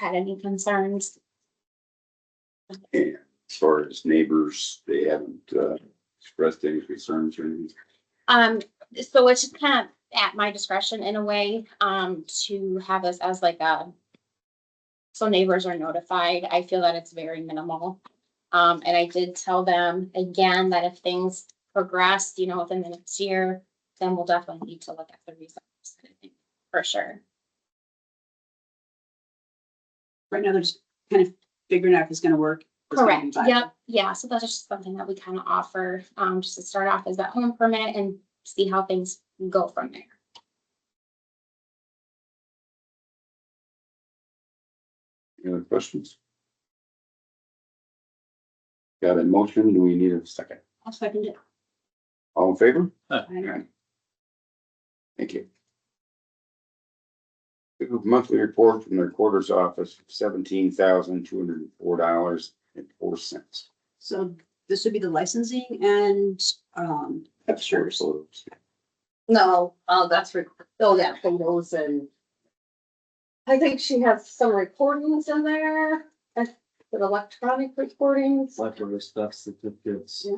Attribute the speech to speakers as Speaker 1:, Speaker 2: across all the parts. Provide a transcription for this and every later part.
Speaker 1: had any concerns.
Speaker 2: And as far as neighbors, they haven't uh, expressed any concerns or anything.
Speaker 1: Um, so it's just kind of at my discretion in a way, um, to have this as like a. So neighbors are notified. I feel that it's very minimal. Um, and I did tell them again that if things progress, you know, within the next year, then we'll definitely need to look at the results. For sure.
Speaker 3: Right now, they're just kind of figuring out if it's gonna work. if it's gonna be
Speaker 1: Correct,
Speaker 3: viable.
Speaker 1: yep, yeah, so that's just something that we kind of offer, um, just to start off as that home permit and see how things go from there.
Speaker 2: Any other questions? Got a motion? Do we need a second?
Speaker 3: I'll second it.
Speaker 2: All in favor?
Speaker 3: Aye.
Speaker 2: Thank you. Approve Monthly report from the recorder's office, seventeen thousand two hundred and four dollars and four cents.
Speaker 3: So this would be the licensing and, um, pictures.
Speaker 4: No, uh, that's, re- oh, yeah, photos and. I think she has some recordings in there, uh, with electronic recordings.
Speaker 5: leftover stuff, certificates.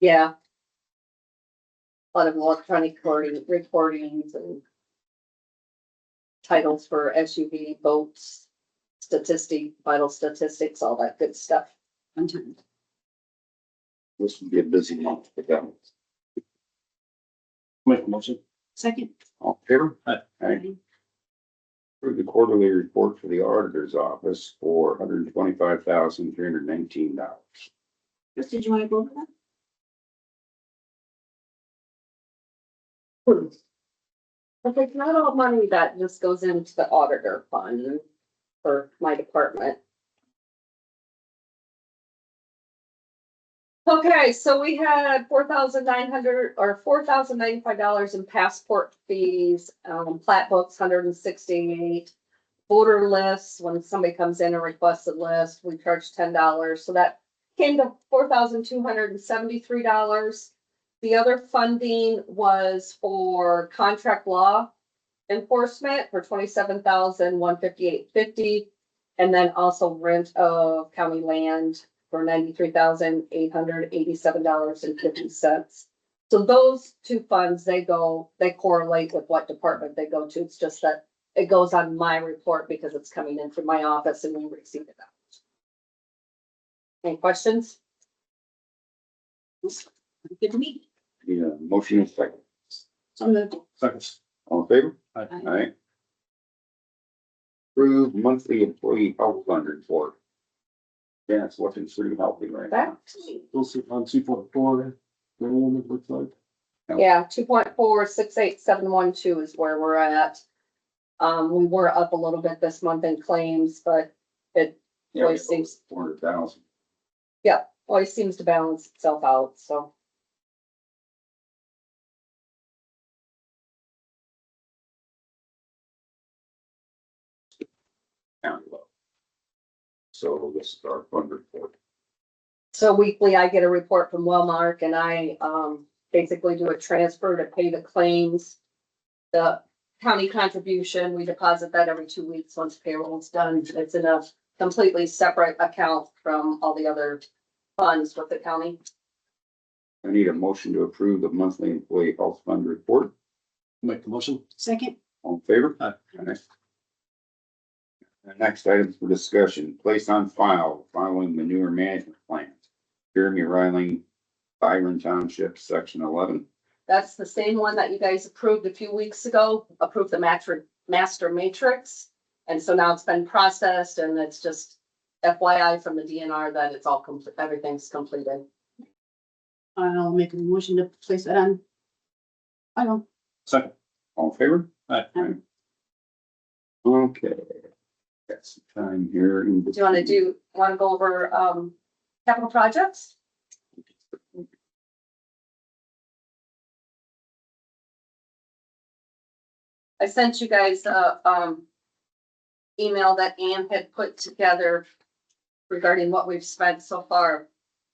Speaker 4: Yeah. A lot of electronic recording, recordings and. Titles for SUV boats, statistic, vital statistics, all that good stuff.
Speaker 3: Content.
Speaker 2: This will be a busy month for them.
Speaker 5: Make a motion.
Speaker 3: Second.
Speaker 2: All in favor?
Speaker 5: Aye.
Speaker 3: Aye.
Speaker 2: Approve the quarterly report for the auditor's office for one hundred and twenty-five thousand three hundred and nineteen dollars.
Speaker 3: Chris, did you want to go over that?
Speaker 4: But like not all money that just goes into the auditor fund for my department. Okay, so we had four thousand nine hundred or four thousand ninety-five dollars in passport fees, um, plat books, hundred and sixty-eight. Voter lists, when somebody comes in and requests a list, we charge ten dollars, so that came to four thousand two hundred and seventy-three dollars. The other funding was for contract law enforcement for twenty-seven thousand one fifty-eight fifty. And then also rent of county land for ninety-three thousand eight hundred eighty-seven dollars and fifty cents. So those two funds, they go, they correlate with what department they go to. It's just that it goes on my report because it's coming in from my office and we receive it out. Any questions?
Speaker 3: Good to meet.
Speaker 2: Need a motion and second.
Speaker 3: So moved.
Speaker 5: Seconds.
Speaker 2: All in favor?
Speaker 3: Aye.
Speaker 2: Alright. Approve monthly employee health fund report. Yeah, it's looking pretty healthy right now.
Speaker 4: Back to you.
Speaker 5: We'll see on two point four, the one it looks like.
Speaker 4: Yeah, two point four, six, eight, seven, one, two is where we're at. Um, we were up a little bit this month in claims, but
Speaker 2: Yeah,
Speaker 4: Voice seems-
Speaker 2: Four hundred thousand.
Speaker 4: always seems to balance itself out, so.
Speaker 2: down low. So this is our fund report.
Speaker 4: So weekly, I get a report from Wellmark and I, um, basically do a transfer to pay the claims. The county contribution, we deposit that every two weeks once payroll's done. It's in a completely separate account from all the other funds with the county.
Speaker 2: I need a motion to approve the monthly employee health fund report.
Speaker 5: Make the motion.
Speaker 3: Second.
Speaker 2: All in favor?
Speaker 5: Aye.
Speaker 2: Alright. The next item for discussion, place on file, following manure management plan. Jeremy Riley, Byron Township, section eleven.
Speaker 4: That's the same one that you guys approved a few weeks ago, approved the matri- master matrix. And so now it's been processed and it's just FYI from the DNR that it's all complete, everything's completed.
Speaker 3: I'll make a motion to place that on. I don't.
Speaker 5: Second.
Speaker 2: All in favor?
Speaker 5: Aye.
Speaker 2: Aye. Okay. Got some time here. in
Speaker 4: Do you wanna
Speaker 2: between.
Speaker 4: do, wanna go over, um, capital projects? I sent you guys a, um, email that Ann had put together regarding what we've spent so far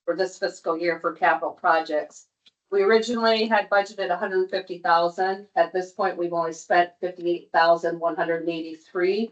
Speaker 4: for this fiscal year for capital projects. We originally had budgeted hundred and fifty thousand. At this point, we've only spent fifty-eight thousand, one hundred and eighty-three.